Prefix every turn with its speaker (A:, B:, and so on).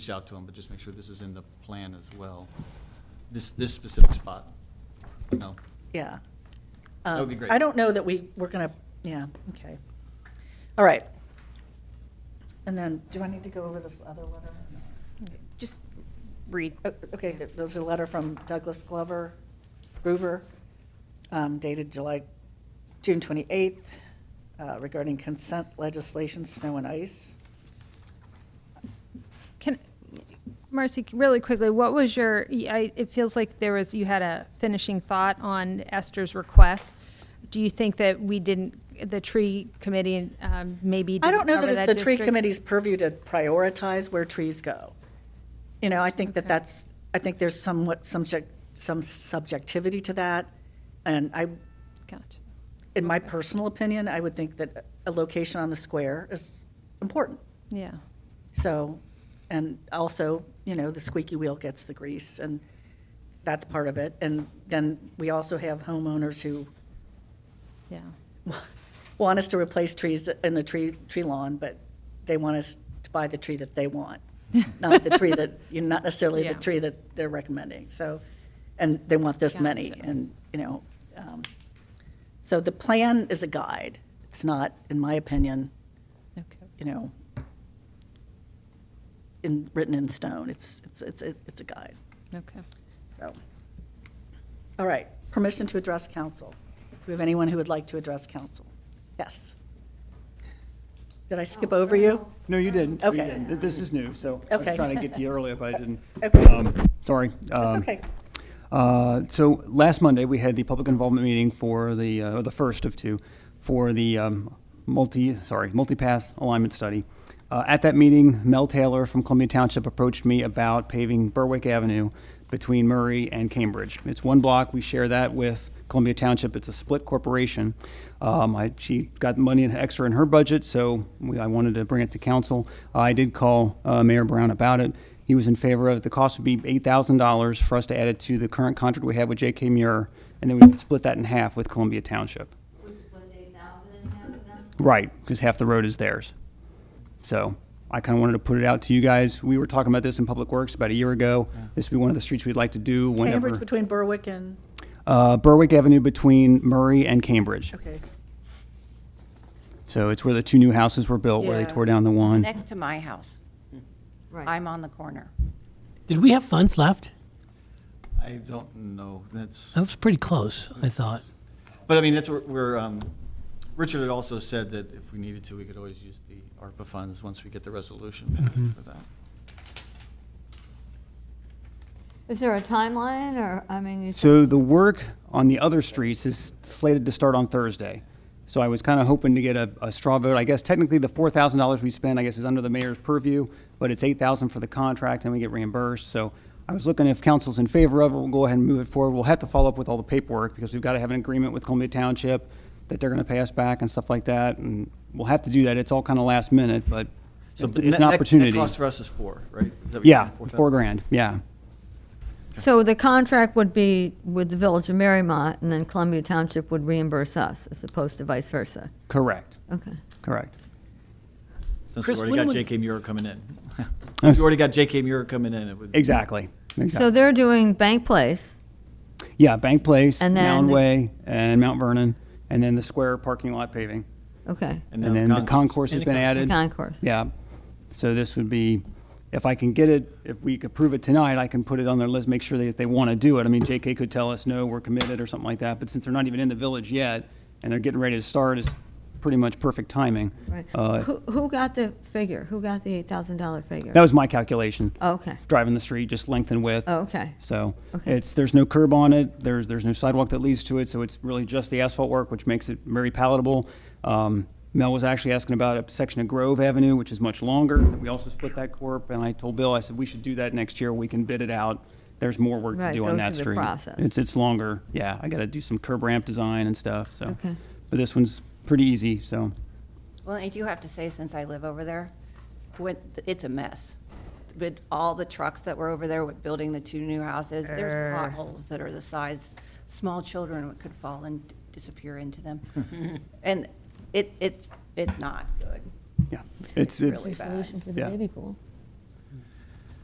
A: reach out to him, but just make sure this is in the plan as well. This, this specific spot. No,
B: Yeah.
A: That would
B: Um,
A: be great.
B: I don't know that we, we're going to, yeah, okay. All right. And then, do I need to go over this other letter?
C: Just read.
B: Oh, Okay, th- there's a letter from Douglas Glover, Groover, um, dated July, June 28th, uh, regarding consent legislation, snow and ice.
C: Can, Marcy, really quickly, what was your, I, it feels like there was, you had a finishing thought on Esther's request. Do you think that we didn't, the tree committee um, maybe
B: I don't
C: didn't
B: know that
C: cover
B: it's the tree
C: district?
B: committee's purview to prioritize where trees go. You know, I think that
C: Okay.
B: that's, I think there's somewhat, subject, some subjectivity to that. And I,
C: Gotcha.
B: in my
C: Okay.
B: personal opinion, I would think that a location on the square is important.
C: Yeah,
B: So, and also, you know, the squeaky wheel gets the grease, and that's part of it. And then we also have homeowners who
C: yeah.
B: want us to replace trees in the tree, tree lawn, but they want us to buy the tree that they want, not the tree that, you not necessarily the
C: Yeah.
B: tree that they're recommending, so, and they want this many,
C: Gotcha.
B: and, you know, um, so the plan is a guide. It's not, in my opinion,
C: Okay.
B: you know, in, written in stone. It's, it's, it's, it's a guide,
C: Okay.
B: so. All right, permission to address council. Do we have anyone who would like to address council? Yes. Did I skip over you?
D: No, you didn't. You
B: Okay.
D: didn't. This is new, so I
B: Okay.
D: was trying to get to you earlier, but I didn't.
B: Okay.
D: Um, Sorry. Um,
B: Okay,
D: uh, So last Monday, we had the public involvement meeting for the, uh, the first of two, for the um, multi, sorry, multi-path alignment study. Uh, At that meeting, Mel Taylor from Columbia Township approached me about paving Berwick Avenue between Murray and Cambridge. It's one block. We share that with Columbia Township. It's a split corporation. Um, I, she got money in- extra in her budget, so we, I wanted to bring it to council. I did call uh, Mayor Brown about it. He was in favor of, the cost would be eight thousand dollars for us to add it to the current contract we have with J.K. Muir, and then we would split that in half with Columbia Township.
E: Would split eight thousand in half of them?
D: Right, because half the road is theirs. So I kind of wanted to put it out to you guys. We were talking about this in Public Works about a year ago. This would be one of the streets we'd like to do whenever.
B: Cambridge between Berwick and,
D: Uh, Berwick Avenue between Murray and Cambridge.
B: okay,
D: So it's where the two new houses were built, where they
B: Yeah.
D: tore down the one.
F: Next to my house. I'm on the corner.
G: Did we have funds left?
A: I don't know, that's,
G: That was pretty close, I thought.
A: but I mean, that's where- where, um, Richard had also said that if we needed to, we could always use the ARPA funds once we get the resolution passed for that.
E: Is there a timeline, or, I mean, you
D: So the work on the other streets is slated to start on Thursday. So I was kind of hoping to get a, a straw vote. I guess technically the four thousand dollars we spent, I guess, is under the mayor's purview, but it's eight thousand for the contract and we get reimbursed. So I was looking if council's in favor of it, we'll go ahead and move it forward. We'll have to follow up with all the paperwork because we've got to have an agreement with Columbia Township that they're going to pay us back and stuff like that. And we'll have to do that. It's all kind of last minute, but
A: So
D: it's
A: the net-
D: it's an
A: net- net
D: opportunity.
A: cost for us is four, right? Is that what you're
D: Yeah,
A: saying, 4,000?
D: four grand, yeah.
H: So the contract would be with the Village of Marymont, and then Columbia Township would reimburse us, as opposed to vice versa.
D: Correct,
H: Okay.
D: correct.
A: Since we
G: Chris,
A: already
G: when
A: got
G: would-
A: JK Muir coming in. If you already got JK Muir coming in, it would.
D: Exactly, exactly.
H: So they're doing Bank Place,
D: Yeah, Bank Place,
H: And then
D: Mound
H: the-
D: Way, and Mount Vernon, and then the square parking lot paving.
H: okay,
D: And then the concourse has been
H: the
D: added.
H: concourse.
D: Yeah. So this would be, if I can get it, if we could prove it tonight, I can put it on their list, make sure that if they want to do it. I mean, JK could tell us, no, we're committed or something like that, but since they're not even in the village yet, and they're getting ready to start, it's pretty much perfect timing.
H: Right.
D: Uh,
H: Who, who got the figure? Who got the $8,000 figure?
D: That was my calculation,
H: Oh, Okay, Oh,
D: driving the street, just length and width.
H: okay.
D: So
H: Okay.
D: it's, there's no curb on it, there's, there's no sidewalk that leads to it, so it's really just the asphalt work, which makes it very palatable. Um, Mel was actually asking about a section of Grove Avenue, which is much longer. We also split that corp, and I told Bill, I said, we should do that next year, we can bid it out. There's more work to
H: Right,
D: do
H: go
D: on that
H: through the
D: street.
H: process.
D: It's, it's longer, yeah, I gotta do some curb ramp design and stuff, so.
H: Okay.
D: But this one's pretty easy, so.
F: Well, I do have to say, since I live over there, when, it's a mess. With all the trucks that were over there with building the two new houses, there's potholes that are the size, small children could fall and disappear into them. And it, it's, it's not good.
D: Yeah, it's, it's,
F: really bad.
H: Solution for the
D: Yeah.
H: baby pool.